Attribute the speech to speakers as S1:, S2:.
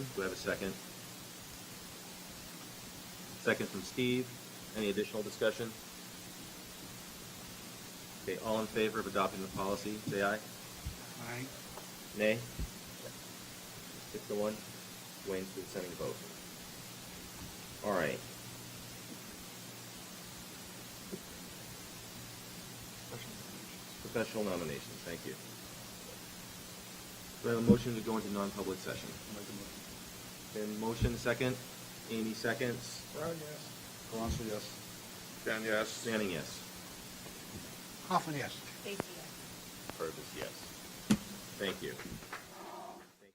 S1: Do I have a second? Second from Steve. Any additional discussion? Okay, all in favor of adopting the policy, say aye.
S2: Aye.
S1: Nay? Six to one. Wayne's consenting vote. All right. Professional nominations, thank you. Do I have a motion to go into non-public session? Then motion second, Amy seconds,
S3: Brown, yes.
S2: Carranza, yes.
S3: Dan, yes.
S1: standing yes,
S2: Hoffman, yes.
S4: Thank you.
S1: Purvis yes. Thank you.